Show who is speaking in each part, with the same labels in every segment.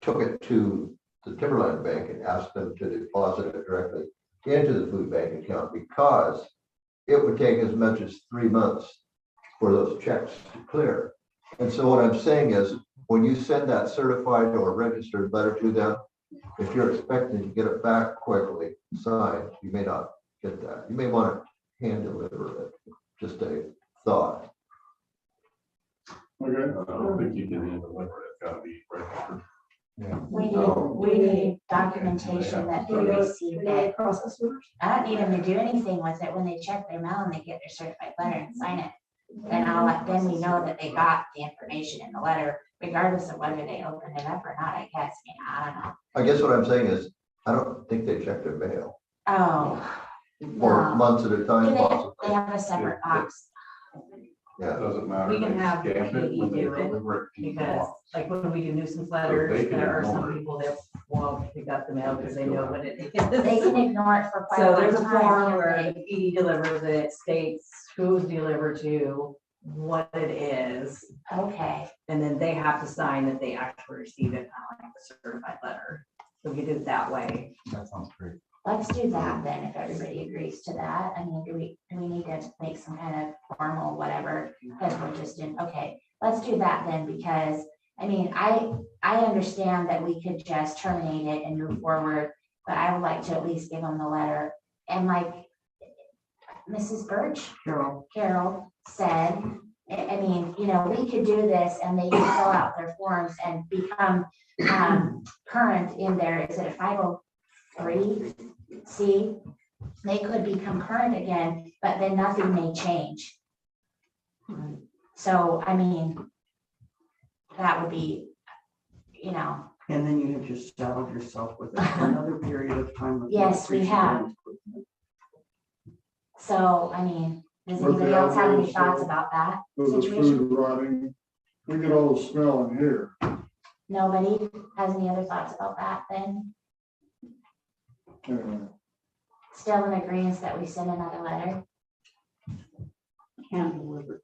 Speaker 1: took it to the Timberland Bank and asked them to deposit it directly into the food bank account because it would take as much as three months for those checks to clear. And so what I'm saying is, when you send that certified or registered letter to them, if you're expecting to get it back quickly signed, you may not get that. You may want to hand deliver it, just a thought.
Speaker 2: Okay, I don't think you can handle it, it's gotta be right.
Speaker 3: We need,
Speaker 1: No.
Speaker 3: we need documentation that they received that.
Speaker 4: process orders?
Speaker 3: I don't need them to do anything with it. When they check their mail and they get their certified letter and sign it. Then I'll, let- then we know that they got the information in the letter, regardless of whether they opened it up or not, I guess. I mean, I don't know.
Speaker 1: I guess what I'm saying is, I don't think they check their mail
Speaker 3: Oh,
Speaker 1: for
Speaker 3: No.
Speaker 1: months at a
Speaker 3: do
Speaker 1: time
Speaker 3: they, they
Speaker 1: possibly.
Speaker 3: have a separate box.
Speaker 2: It
Speaker 1: Yeah,
Speaker 2: doesn't matter.
Speaker 4: We can
Speaker 2: They
Speaker 4: have
Speaker 2: stamp it when they
Speaker 4: PE do it,
Speaker 2: deliver it to you.
Speaker 4: Because like when we do nuisance letters,
Speaker 2: can
Speaker 4: there are
Speaker 2: ignore
Speaker 4: some
Speaker 2: it.
Speaker 4: people that won't pick up the mail because they know what it
Speaker 3: They
Speaker 4: is.
Speaker 3: can ignore it for quite a
Speaker 4: So
Speaker 3: long time.
Speaker 4: there's a form
Speaker 3: can't
Speaker 4: where
Speaker 3: they?
Speaker 4: the PD delivers it, states who's delivered to, what it is,
Speaker 3: Okay,
Speaker 4: and then they have to sign that they actually received it, not like the certified letter. So we did it that way.
Speaker 5: That sounds great.
Speaker 3: let's do that then, if everybody agrees to that. I mean, do we, do we need to make some kind of formal whatever? Because we're just in, okay, let's do that then, because, I mean, I, I understand that we could just terminate it and move forward, but I would like to at least give them the letter. And like Mrs. Birch,
Speaker 4: Carol,
Speaker 3: Carol said, I, I mean, you know, we could do this and they could fill out their forms and become um, current in their, is it a five oh three C? They could become current again, but then nothing may change. So, I mean, that would be, you know,
Speaker 6: And then you have just saddled yourself with it for another period of time. of
Speaker 3: Yes, we have. so, I mean, does anybody else have any thoughts about that
Speaker 7: of the
Speaker 3: situation?
Speaker 7: food rotting. We get all the smell in here.
Speaker 3: Nobody has any other thoughts about that then?
Speaker 7: Uh,
Speaker 3: still in agreement that we send another letter?
Speaker 6: Hand delivered.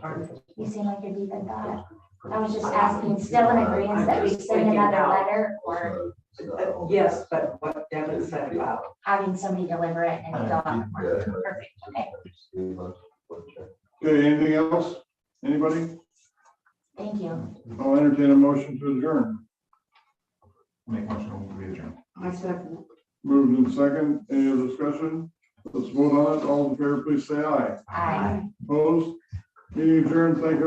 Speaker 3: Kathy, You seem like you're deep in thought. I was just asking, still in agreement that we send another letter or
Speaker 1: so-
Speaker 4: Uh,
Speaker 1: so-
Speaker 8: Yes, but what Devin said about
Speaker 3: having somebody deliver it and fill out the form? Perfect, okay.
Speaker 1: Three months, one check.
Speaker 7: Okay, anything else? Anybody?
Speaker 3: Thank you.
Speaker 7: I'll entertain a motion to adjourn.
Speaker 5: Make motion, we adjourn.
Speaker 6: I second.
Speaker 7: Moved in second, any other discussion? Let's vote on it. All in favor, please say aye.
Speaker 3: Aye.
Speaker 7: Opposed? Meeting adjourned. Thank you.